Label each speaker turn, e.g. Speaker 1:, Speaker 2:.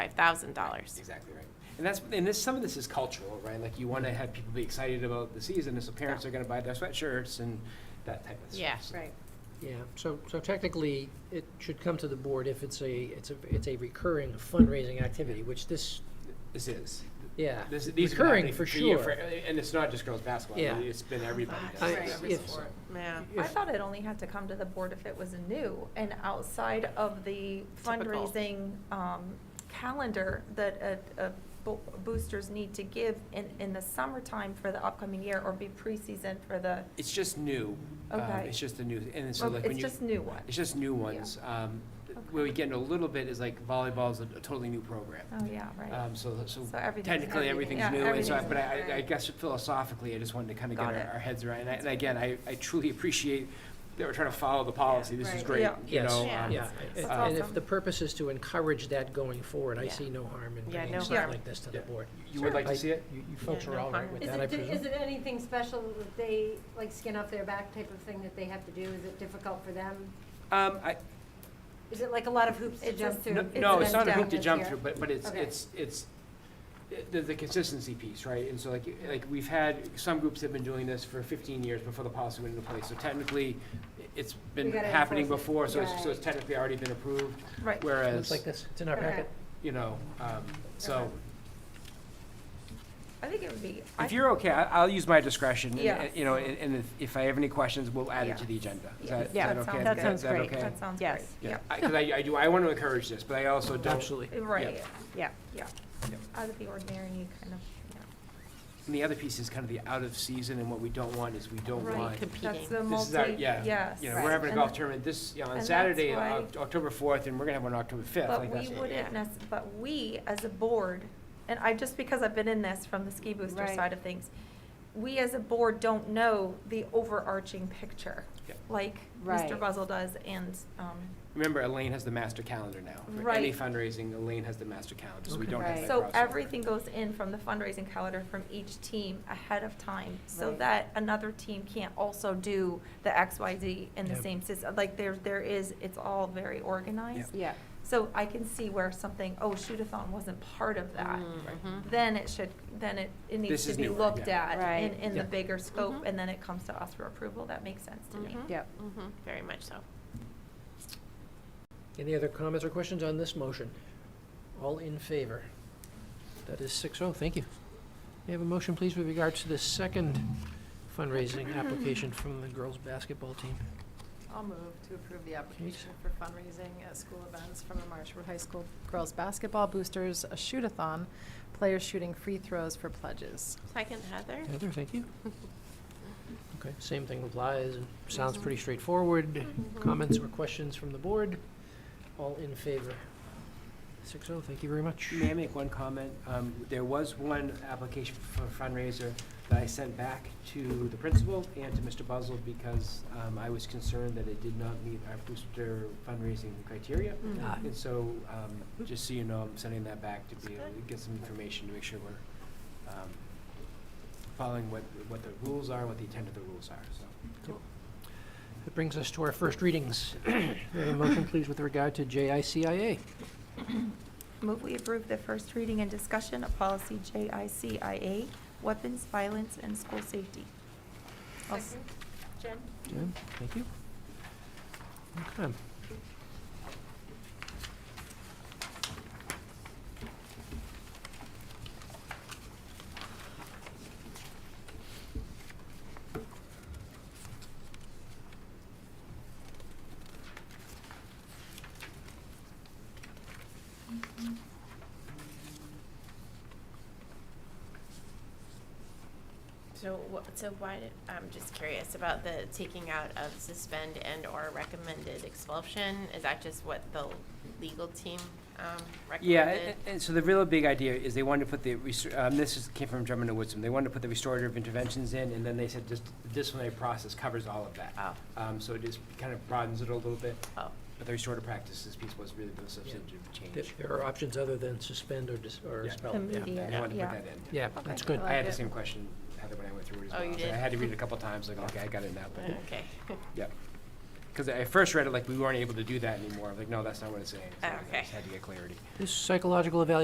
Speaker 1: five thousand dollars.
Speaker 2: Exactly right. And that's, and this, some of this is cultural, right? Like you
Speaker 3: Mm-hmm.
Speaker 2: want to have people be excited about the season, and so parents are going to buy their sweatshirts and that type of stuff.
Speaker 1: Yeah.
Speaker 2: So-
Speaker 3: Right.
Speaker 4: Yeah, so, so technically, it should come to the board if it's a, it's a, it's a recurring fundraising activity, which this,
Speaker 2: This is.
Speaker 4: yeah,
Speaker 2: This, these have been
Speaker 4: recurring
Speaker 2: happening
Speaker 4: for
Speaker 2: a year
Speaker 4: sure.
Speaker 2: And it's not just girls' basketball.
Speaker 4: Yeah.
Speaker 2: It's been everybody. does
Speaker 4: I-
Speaker 2: it,
Speaker 3: Right.
Speaker 2: so-
Speaker 3: Every
Speaker 4: sport.
Speaker 1: Yeah.
Speaker 3: I
Speaker 4: If-
Speaker 3: thought it only had to come to the board if it was new and outside of the
Speaker 1: Typical.
Speaker 3: fundraising um, calendar that uh, uh, bo- boosters need to give in, in the summertime for the upcoming year or be preseason for the,
Speaker 2: It's just new. Um,
Speaker 3: Okay.
Speaker 2: It's just a new, and so
Speaker 3: Well,
Speaker 2: like when
Speaker 3: it's
Speaker 2: you.
Speaker 3: just new one.
Speaker 2: It's just new ones. Um, th- Where we get into a little bit is like volleyball's a a totally new program.
Speaker 3: Oh, yeah, right.
Speaker 2: Um, so, so
Speaker 3: So everything's-
Speaker 2: technically, everything's
Speaker 3: everything-
Speaker 2: new,
Speaker 3: yeah,
Speaker 2: and so, I-
Speaker 3: everything's
Speaker 2: but I,
Speaker 3: new.
Speaker 2: I- I guess philosophically, I just wanted to kind of get
Speaker 3: Got
Speaker 2: our,
Speaker 3: it.
Speaker 2: our heads around, and I- and again, I, I truly appreciate that we're trying to follow the policy, this is
Speaker 1: Right.
Speaker 2: great,
Speaker 3: Yeah.
Speaker 2: you
Speaker 4: Yes.
Speaker 2: know?
Speaker 1: Yeah.
Speaker 2: um,
Speaker 4: Yeah,
Speaker 3: That's
Speaker 4: and- and if
Speaker 3: awesome.
Speaker 4: the purpose is to encourage that going forward, I
Speaker 1: Yeah.
Speaker 4: see no harm in
Speaker 1: Yeah,
Speaker 4: bringing
Speaker 1: no
Speaker 4: stuff
Speaker 3: harm.
Speaker 4: like this to the
Speaker 2: Yeah.
Speaker 4: board.
Speaker 2: You would like to
Speaker 4: I-
Speaker 2: see it?
Speaker 4: You, you folks
Speaker 1: Yeah,
Speaker 4: are
Speaker 1: no
Speaker 4: all right
Speaker 1: harm.
Speaker 4: with
Speaker 5: Is
Speaker 4: that, I
Speaker 5: it, is
Speaker 4: presume?
Speaker 5: it anything special that they, like skin off their back type of thing that they have to do? Is it difficult for them?
Speaker 2: Um, I,
Speaker 5: Is it like a lot of hoops to
Speaker 3: It's
Speaker 5: jump
Speaker 3: just-
Speaker 5: through?
Speaker 2: no,
Speaker 3: it's
Speaker 2: no, it's
Speaker 3: been
Speaker 2: not a
Speaker 3: done
Speaker 2: hoop to
Speaker 5: this
Speaker 2: jump
Speaker 5: year.
Speaker 2: through, but, but it's,
Speaker 5: Okay.
Speaker 2: it's, it's, the, the consistency piece, right? And so like, like, we've had, some groups have been doing this for fifteen years before the policy went into place, so technically, it's been
Speaker 5: We gotta
Speaker 2: happening
Speaker 5: enforce it.
Speaker 2: before, so it's, so
Speaker 5: Right.
Speaker 2: it's technically already been approved,
Speaker 3: Right.
Speaker 2: whereas,
Speaker 4: Looks like this, it's in our
Speaker 5: Okay.
Speaker 4: packet.
Speaker 2: you know, um, so,
Speaker 5: Okay.
Speaker 3: I think it would be. I-
Speaker 2: If you're okay, I- I'll use my discretion, and-
Speaker 3: Yeah.
Speaker 2: and, you know, and and if- if I have any questions, we'll add it to
Speaker 3: Yeah.
Speaker 2: the agenda. Is
Speaker 3: Yeah.
Speaker 2: that, is
Speaker 1: Yeah,
Speaker 2: that
Speaker 3: that
Speaker 2: okay?
Speaker 3: sounds- that
Speaker 2: Is
Speaker 1: sounds great.
Speaker 2: okay?
Speaker 3: That sounds
Speaker 1: Yes.
Speaker 3: great.
Speaker 2: Yeah, because I I do, I want to encourage this, but I also don't,
Speaker 4: Absolutely.
Speaker 3: Right,
Speaker 1: Yeah.
Speaker 3: yeah.
Speaker 2: Yep.
Speaker 3: Out of the ordinary, you kind of,
Speaker 2: and the other piece is kind of the out of season, and what we don't want is we don't
Speaker 3: Right.
Speaker 2: want.
Speaker 3: yeah. That's
Speaker 1: Competing.
Speaker 3: the
Speaker 2: This is our,
Speaker 3: multi,
Speaker 2: yeah,
Speaker 3: yes.
Speaker 2: you know, we're having a
Speaker 3: And
Speaker 2: golf
Speaker 3: the-
Speaker 2: tournament this, you know, on
Speaker 3: and that's
Speaker 2: Saturday,
Speaker 3: why-
Speaker 2: Oc- October 4th, and we're going to have one on October 5th.
Speaker 3: But
Speaker 2: like
Speaker 3: we
Speaker 2: that's-
Speaker 3: wouldn't, nec- but we, as a board, and I, just because I've been in this from the ski booster
Speaker 5: Right.
Speaker 3: side of things, we as a board don't know the overarching picture,
Speaker 2: Yeah.
Speaker 3: like Mr.
Speaker 5: Right.
Speaker 3: Buzzell does, and, um,
Speaker 2: Remember, Elaine has the master calendar now. For Any
Speaker 3: Right.
Speaker 2: fundraising, Elaine has the master calendar, so we
Speaker 4: Okay.
Speaker 2: don't have
Speaker 5: Right.
Speaker 2: that
Speaker 3: so
Speaker 2: crossover.
Speaker 3: everything goes in from the fundraising calendar from each team ahead of time, so
Speaker 5: Right.
Speaker 3: that another team can't also do the X, Y, Z in the
Speaker 4: Yep.
Speaker 3: same system, like, there, there is, it's all very organized.
Speaker 5: Yeah.
Speaker 3: So I can see where something, oh, shoot-a-thon wasn't part of that.
Speaker 5: Mm-hmm.
Speaker 1: Mhm.
Speaker 3: then it should, then it, it
Speaker 2: This
Speaker 3: needs to
Speaker 2: is
Speaker 3: be
Speaker 2: newer,
Speaker 3: looked
Speaker 2: yeah.
Speaker 3: at in,
Speaker 5: Right. Mm-hmm.
Speaker 3: in the
Speaker 4: Yeah.
Speaker 3: bigger scope,
Speaker 1: Mhm.
Speaker 3: and then it comes to us for approval. That makes sense to me.
Speaker 1: Mhm.
Speaker 5: Yep.
Speaker 1: Mhm. Very much so.
Speaker 4: Any other comments or questions on this motion? All in favor? That is six oh, thank you. May I have a motion, please, with regards to the second fundraising application from the girls' basketball team?
Speaker 6: I'll move to approve the application for fundraising at school events from the Marshwood High School girls' basketball boosters, a shoot-a-thon, players shooting free throws for pledges.
Speaker 1: Second, Heather?
Speaker 4: Heather, thank you. Okay, same thing applies, and sounds pretty straightforward. Comments or questions from the board? All in favor? Six oh, thank you very much.
Speaker 2: May I make one comment? Um, There was one application for fundraiser that I sent back to the principal and to Mr. Buzzell because um, I was concerned that it did not meet our booster fundraising criteria.
Speaker 4: Ah,
Speaker 2: And so, um, just so you know, I'm sending that back to be able to get some information to make sure we're um, following what, what the rules are, what the intent of the rules are, so.
Speaker 4: That brings us to our first readings. May I have a motion, please, with regard to JICIA?
Speaker 3: Move we approve the first reading and discussion of policy JICIA, weapons, violence, and school safety. I'll s-
Speaker 1: Jen?
Speaker 4: Jen, thank you. Okay.
Speaker 1: So, wh- so why, did- I'm just curious about the taking out of suspend and/or recommended expulsion. Is that just what the legal team um,
Speaker 2: Yeah,
Speaker 1: recommended?
Speaker 2: and, and so the real big idea is they wanted to put the, restor- um, this is, came from Drummond and Woodson, they wanted to put the restorative interventions in, and then they said just the disciplinary process covers all of that.
Speaker 1: Oh,
Speaker 2: Um, so it just kind of broadens it a little bit,
Speaker 1: oh,
Speaker 2: but the restorative practices piece was really the substantive
Speaker 4: There
Speaker 2: change.
Speaker 4: there are options other than suspend or dis- or
Speaker 2: Yeah.
Speaker 4: expel. yeah.
Speaker 3: Immediate.
Speaker 2: And I wanted to
Speaker 3: Yeah.
Speaker 2: put that in.
Speaker 4: Yeah,
Speaker 3: Okay.
Speaker 4: that's good.
Speaker 6: I
Speaker 2: I had the
Speaker 6: like it.
Speaker 2: same question, Heather, when I went through it as
Speaker 1: Oh,
Speaker 2: well.
Speaker 1: you
Speaker 2: So I
Speaker 1: did?
Speaker 2: had to read it a couple times, like, okay, I got it now, but,
Speaker 1: okay.
Speaker 2: yeah. Because I first read it like we weren't able to do that anymore. I'm like, no, that's not what it's saying. So I
Speaker 1: Oh, Okay.
Speaker 2: just had to get clarity.
Speaker 4: This psychological evaluation